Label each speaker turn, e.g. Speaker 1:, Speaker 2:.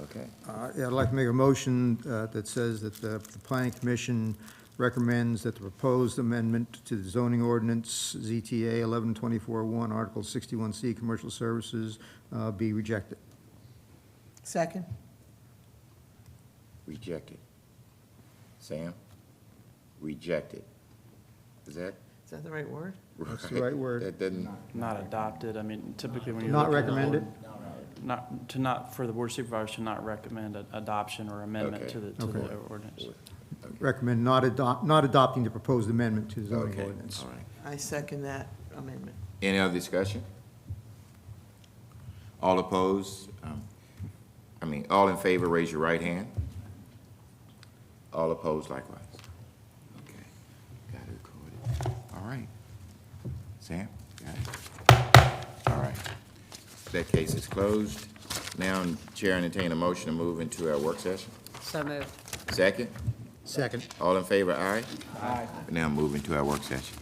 Speaker 1: Okay.
Speaker 2: Uh, yeah, I'd like to make a motion uh, that says that the the planning commission recommends that the proposed amendment to the zoning ordinance, ZTA 11241, Article 61C, Commercial Services, uh, be rejected.
Speaker 3: Second?
Speaker 1: Rejected. Sam? Rejected. Is that
Speaker 3: Is that the right word?
Speaker 1: right?
Speaker 2: That's the right word.
Speaker 1: That doesn't,
Speaker 4: Not adopted, I mean, typically when you.
Speaker 2: Not
Speaker 4: look at the
Speaker 2: recommended?
Speaker 4: ord- Not, to not, for the board of supervisors to not recommend a- adoption or amendment
Speaker 1: Okay.
Speaker 4: to the, to the
Speaker 2: Okay.
Speaker 4: ordinance.
Speaker 2: Recommend not adopt, not adopting the proposed amendment to the zoning
Speaker 1: okay,
Speaker 2: ordinance.
Speaker 1: all right.
Speaker 3: I second that amendment.
Speaker 1: Any other discussion? All opposed? Um, I mean, all in favor, raise your right hand. All opposed likewise. Okay, got it recorded. All right. Sam, got it? All right. That case is closed. Now, Chair entertain a motion to move into our work session.
Speaker 5: So moved.
Speaker 1: Second?
Speaker 2: Second.
Speaker 1: All in favor, aye? Aye. Now move into our work session.